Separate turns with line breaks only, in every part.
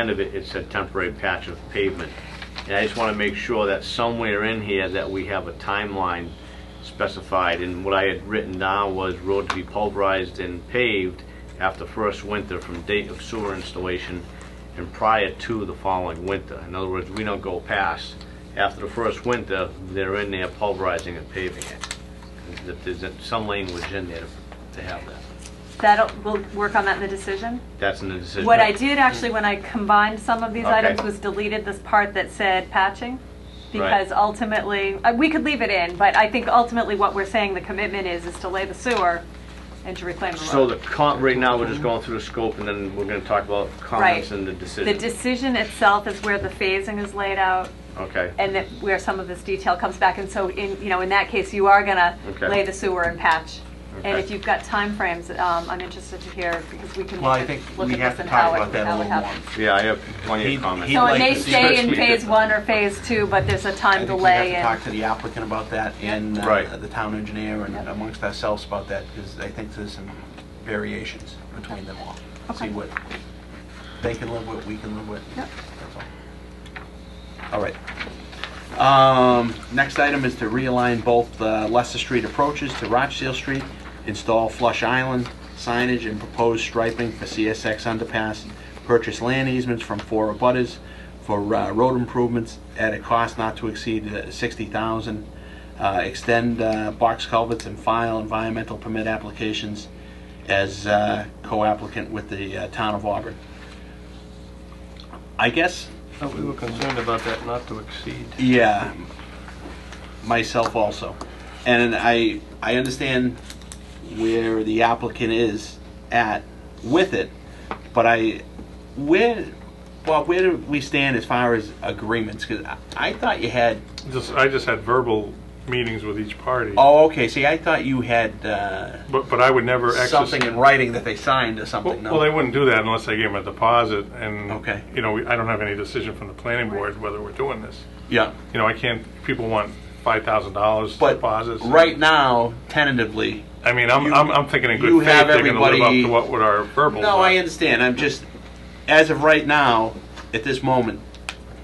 end of it, it's a temporary patch of pavement. And I just want to make sure that somewhere in here that we have a timeline specified. And what I had written down was road to be pulverized and paved after first winter from date of sewer installation and prior to the following winter. In other words, we don't go past, after the first winter, they're in there pulverizing and paving it. That There's some language in there to have that.
That'll, we'll work on that in the decision.
That's in the decision.
What I did actually, when I combined some of these
Okay.
items, was deleted this part that said patching.
Right.
Because ultimately, uh, we could leave it in, but I think ultimately what we're saying the commitment is, is to lay the sewer and to reclaim the
So the
road.
comp, right now, we're just going through the scope, and then we're gonna talk about comments
Right.
and the
The
decision.
decision itself is where the phasing is laid out
Okay,
and that where some of this detail comes back. And so in, you know, in that case, you are gonna
Okay.
lay the sewer and patch. And
Okay.
if you've got timeframes, um, I'm interested to hear because we can
Well,
look
I
at
think
look
we
at
have
this
to
and
talk
how it-
about that
how
a
it
little more.
happens.
yeah, I have plenty
He'd-
of comments.
he'd
So it
like
may
to see
stay in
us-
phase one or phase two, but there's a time delay
I think
and,
we have to talk to the applicant about that and uh,
Right.
the town engineer and
Yep.
amongst ourselves about that, because I think there's some variations between them all.
Okay.
See what they can live with, we can live with.
Yep.
That's all. All right. Um, Next item is to realign both uh, Leicester Street approaches to Rochdale Street, install flush island signage and propose striping for CSX underpass, purchase land easements from four abutters for uh, road improvements at a cost not to exceed uh, 60000 uh, extend uh, box culverts and file environmental permit applications as uh, co-applicant with the uh, town of Auburn. I guess
Thought we were concerned about that not to exceed.
yeah, myself also. And I, I understand where the applicant is at with it, but I, where, well, where do we stand as far as agreements? Because I thought you had,
Just, I just had verbal meetings with each party.
oh, okay, see, I thought you had uh,
But, but I would never exercise.
something in writing that they signed or
Well,
something, no?
well, they wouldn't do that unless they gave them a deposit and.
Okay.
You know, we- I don't have any decision from the planning board whether we're doing this.
Yeah,
You know, I can't, people want five thousand dollars
but
deposits.
right now, tentatively,
I mean, I'm,
you-
I'm, I'm thinking in
you
good
have
faith, they're gonna live up
everybody-
to what would our verbal.
No, I understand. I'm just, as of right now, at this moment,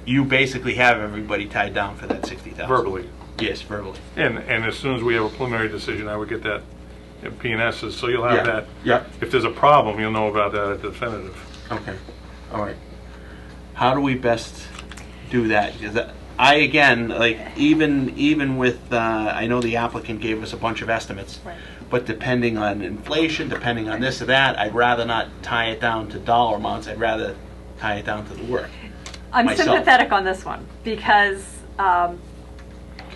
you basically have everybody tied down for that sixty thousand.
Verbally.
Yes, verbally.
And, and as soon as we have a preliminary decision, I would get that at P and S's, so you'll have that.
Yeah.
If there's a problem, you'll know about that at the definitive.
Okay. All right. How do we best do that? 'Cause I again, like even even with, uh, I know the applicant gave us a bunch of estimates,
Right.
but depending on inflation, depending on this or that, I'd rather not tie it down to dollar amounts. I'd rather tie it down to the work.
I'm
myself.
sympathetic on this one because um,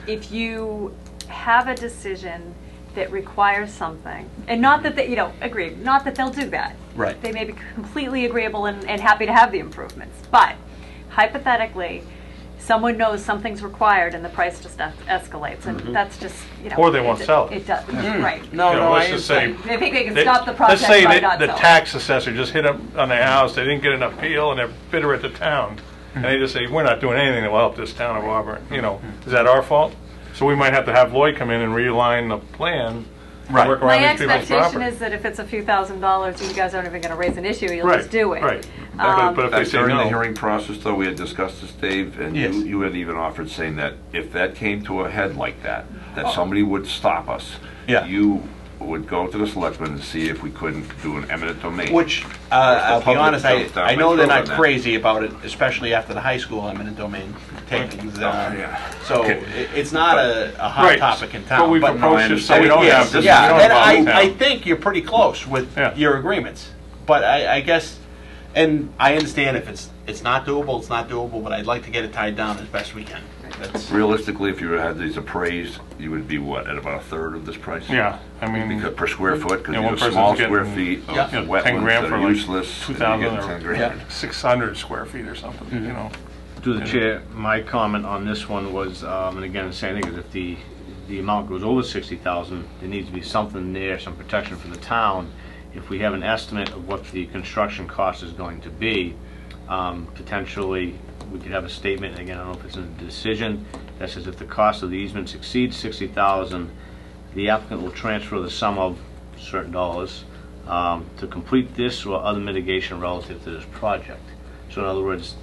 if you have a decision that requires something, and not that they, you know, agree, not that they'll do that.
Right.
They may be completely agreeable and, and happy to have the improvements, but hypothetically, someone knows something's required and the price just es- escalates, and that's just, you know.
Or they won't
it-
sell it.
It does, right.
Mm-hmm. No,
You know,
no,
let's
I
just
understand.
say-
They think they can
They-
stop the project
Let's say
by
that
not
the
selling.
tax assessor just hit up on the house, they didn't get an appeal, and they're bitter at the town. And
Mm-hmm.
they just say, we're not doing anything that will help this town of Auburn, you know, is that our fault? So we might have to have Lloyd come in and realign the plan,
Right.
and work
My
around these people's
expectation
property.
is that if it's a few thousand dollars, you guys aren't even gonna raise an issue, you'll
Right,
just do it.
right.
Um,
But but if they
That's
say
During the
no,
hearing process, though, we had discussed this, Dave, and
Yes.
you you had even offered saying that if that came to a head like that,
Uh,
that somebody would stop us.
Yeah.
You would go to the selectmen and see if we couldn't do an eminent domain.
Which, uh, I'll be
public
honest, I,
jumped down
I
my
know they're
throat
not
on that.
crazy about it, especially after the high school eminent domain takings.
Oh, yeah.
uh, So
Okay.
it- it's not a, a hot
Right.
topic in
But
town.
we
but-
propose
No, I
this, so we
understand.
don't
Yes,
have this, we
Yeah,
don't
then
have all
I, I
town.
think you're pretty close with
Yeah.
your agreements. But I, I guess, and I understand if it's, it's not doable, it's not doable, but I'd like to get it tied down as best we can. That's,
Realistically, if you had these appraised, you would be what, at about a third of this price?
Yeah, I mean,
Because per square foot, because
Yeah,
you
one
have
person's
small square
getting,
feet of
Yeah.
you know,
wetlands
ten grand
that
for
are
like
useless.
two
and you're
thousand
getting 10
or
grand. Mm-hmm.
six hundred square feet or something, you know.
Through the chair, my comment on this one was, um, and again, the same thing, is if the, the amount goes over sixty thousand, there needs to be something there, some protection for the town. If we have an estimate of what the construction cost is going to be, um, potentially, we could have a statement, again, I don't know if it's in the decision, that says if the cost of the easements exceeds sixty thousand, the applicant will transfer the sum of certain dollars um, to complete this or other mitigation relative to this project. So in other words,